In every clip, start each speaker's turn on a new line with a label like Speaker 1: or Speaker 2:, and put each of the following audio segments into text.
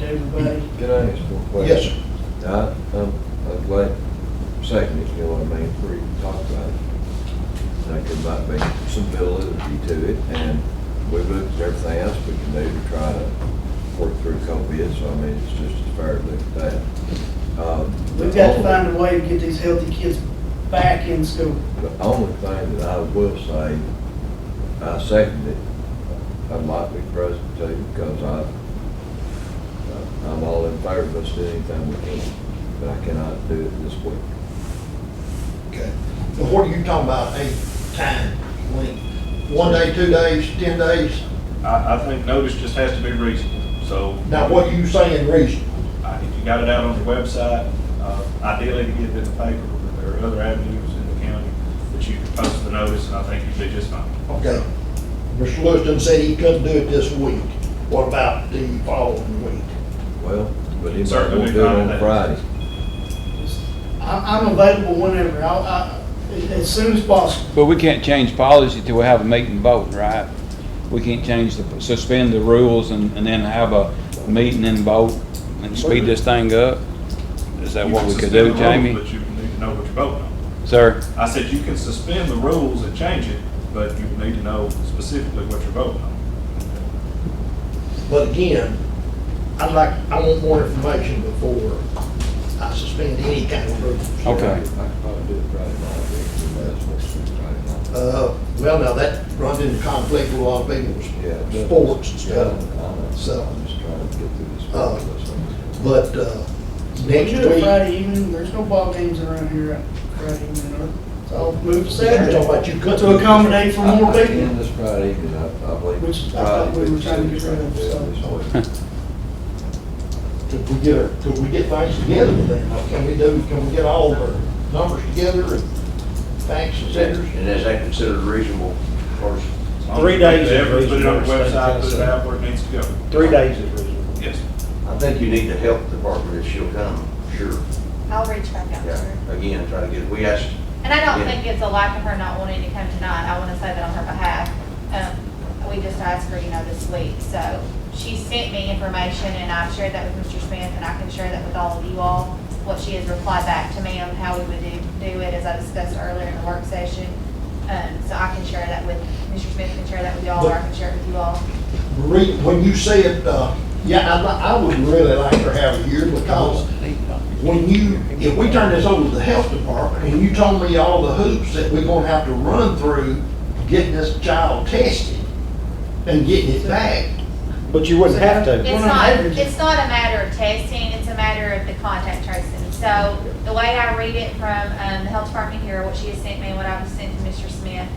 Speaker 1: Buddy?
Speaker 2: Can I ask one question?
Speaker 1: Yes, sir.
Speaker 2: I, I'm, I'm glad, second, if you know what I mean, for you to talk about it. I think there might be some validity to it, and we've looked at everything else we can do to try to work through COVID, so I mean, it's just as fair to look at that. Um, the
Speaker 1: We've got to
Speaker 2: only-
Speaker 1: find a way to get these healthy kids back in school.
Speaker 2: The only thing that I will say, I second it, I'd like to be present too, because I, I'm all in favor of us doing anything we can, but I cannot do it this week.
Speaker 3: Okay. Now, what are you talking about, a time, when, one day, two days, ten days?
Speaker 4: I, I think notice just has to be reasonable, so.
Speaker 3: Now, what are you saying reason?
Speaker 4: I- If you got it out on your website, uh, ideally to get it in the paper, but there are other avenues in the county that you can post the notice, and I think you'd be just fine.
Speaker 3: Okay. Mr. Liston said he couldn't do it this week. What about the following week?
Speaker 2: Well, but he might
Speaker 4: Certainly
Speaker 2: want to do it on
Speaker 4: not.
Speaker 2: Friday.
Speaker 1: I- I'm available whenever, I'll- I, as soon as possible.
Speaker 5: But we can't change policy till we have a meeting and vote, right? We can't change the, suspend the rules and, and then have a meeting and vote and speed this thing up? Is that
Speaker 4: You
Speaker 5: what
Speaker 4: can
Speaker 5: we could
Speaker 4: suspend the
Speaker 5: do,
Speaker 4: rules,
Speaker 5: Jamie?
Speaker 4: But you need to know what you're voting on.
Speaker 5: Sir,
Speaker 4: I said you can suspend the rules and change it, but you need to know specifically what you're voting on.
Speaker 3: But again, I'd like, I want more information before I suspend any kind of rules.
Speaker 2: I
Speaker 5: okay.
Speaker 2: could probably do it Friday night, I think, but that's what's Friday night.
Speaker 3: Uh, well, now that runs into conflict with a lot of people's
Speaker 2: Yeah, it does.
Speaker 3: sports and
Speaker 2: Yeah,
Speaker 3: stuff.
Speaker 2: I know.
Speaker 3: So-
Speaker 2: I'm just trying to get through this.
Speaker 3: Uh,
Speaker 2: process.
Speaker 3: But, uh,
Speaker 1: We
Speaker 3: next
Speaker 1: do it
Speaker 3: week.
Speaker 1: Friday evening, there's no ball games around here Friday evening, so I'll move
Speaker 3: You're talking
Speaker 1: Saturday
Speaker 3: about you couldn't.
Speaker 1: to accommodate for
Speaker 2: I-
Speaker 1: more
Speaker 2: I
Speaker 1: people.
Speaker 2: can this Friday, evening, I, I believe.
Speaker 1: Which I thought we were trying to get rid of, so.
Speaker 3: Could we get, a- could we get things together with that? Can we do, can we get all of our numbers together and facts and figures?
Speaker 6: And is that considered reasonable, of course?
Speaker 4: As long as
Speaker 7: Three
Speaker 4: you
Speaker 7: days
Speaker 4: do
Speaker 7: is
Speaker 4: it, Put it on your
Speaker 7: reasonable.
Speaker 4: website, put it out where it needs to go.
Speaker 7: Three days is reasonable.
Speaker 4: Yes.
Speaker 6: I think you need the health department if she'll come, sure.
Speaker 8: I'll reach back out to her.
Speaker 6: Yeah, again, try to get, we asked,
Speaker 8: And I don't
Speaker 6: Yeah.
Speaker 8: think it's a lack of her not wanting to come tonight, I wanna say that on her behalf. Um, we just asked her, you know, this week, so she sent me information and I've shared that with Mr. Smith and I can share that with all of you all. What she has replied back to me on how we would do, do it, as I discussed earlier in the work session. Um, so I can share that with, Mr. Smith can share that with y'all, or I can share it with you all.
Speaker 3: Marie, when you said, uh, yeah, I'd, li- I would really like to have a year because when you, if we turn this over to the health department and you told me all the hoops that we're gonna have to run through getting this child tested and getting it back,
Speaker 7: But you wouldn't have to.
Speaker 1: We're
Speaker 8: It's
Speaker 1: not
Speaker 8: not,
Speaker 1: averaging.
Speaker 8: it's not a matter of testing, it's a matter of the contact tracing. So the way I read it from um, the health department here, what she has sent me, and what I've sent to Mr. Smith,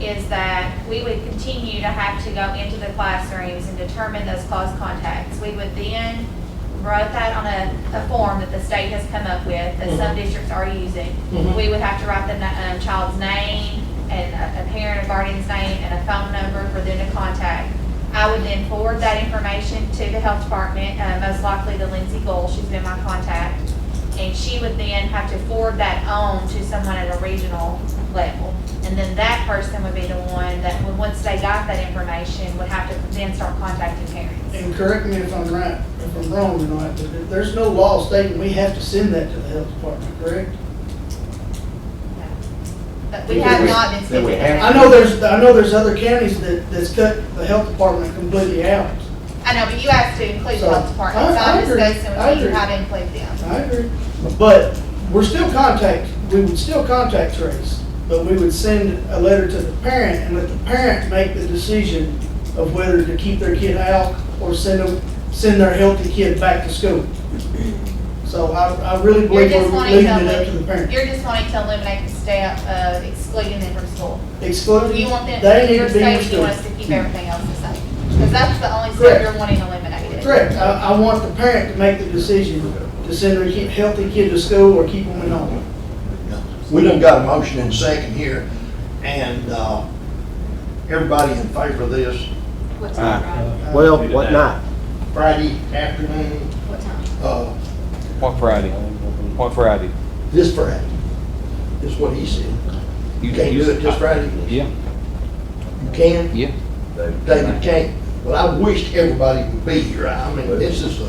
Speaker 8: is that we would continue to have to go into the classrooms and determine those close contacts. We would then write that on a, a form that the state has come up with, that some districts are using.
Speaker 3: Mhm.
Speaker 8: We would have to write the na- um, child's name and a- a parent or guardian's name and a phone number for them to contact. I would then forward that information to the health department, uh, most likely to Lindsay Gold, she's been my contact. And she would then have to forward that on to someone at a regional level. And then that person would be the one that, would- once they got that information, would have to then start contacting parents.
Speaker 1: And correct me if I'm right, if I'm wrong or not, but there- there's no law stating we have to send that to the health department, correct?
Speaker 8: But we have not been
Speaker 6: Then we
Speaker 8: speaking.
Speaker 6: have-
Speaker 1: I know there's, I know there's other counties that, that's cut the health department completely out.
Speaker 8: I know, but you asked to include the health department, so
Speaker 1: I- I
Speaker 8: I'm
Speaker 1: agree.
Speaker 8: discussing
Speaker 1: I
Speaker 8: with you
Speaker 1: agree.
Speaker 8: how to include them.
Speaker 1: I agree. But we're still contact, we would still contact trace, but we would send a letter to the parent and let the parent make the decision of whether to keep their kid out or send them, send their healthy kid back to school. So I, I really
Speaker 8: You're
Speaker 1: believe
Speaker 8: just
Speaker 1: we're
Speaker 8: wanting
Speaker 1: leaving
Speaker 8: to,
Speaker 1: it up to the
Speaker 8: elim-
Speaker 1: parent.
Speaker 8: you're just wanting to eliminate the step of excluding them from school.
Speaker 1: Excluding,
Speaker 8: You want them,
Speaker 1: they need
Speaker 8: your
Speaker 1: to be in
Speaker 8: safety, you
Speaker 1: school.
Speaker 8: want us to keep everything else the same. Because that's the only
Speaker 1: Correct.
Speaker 8: step you're wanting eliminated.
Speaker 1: Correct, I, I want the parent to make the decision to send their kid, healthy kid to school or keep them at home.
Speaker 3: We done got a motion and second here, and, uh, everybody in favor of this
Speaker 8: What
Speaker 5: Ah.
Speaker 8: time, Ryan?
Speaker 7: Well, what night?
Speaker 3: Friday afternoon,
Speaker 8: What time?
Speaker 3: uh,
Speaker 5: What Friday? What Friday?
Speaker 3: this Friday, is what he said. You can't do it this Friday?
Speaker 5: Yeah,
Speaker 3: You can?
Speaker 5: yeah.
Speaker 2: David,
Speaker 3: David can't. Well, I wished everybody would be here. I mean, this is a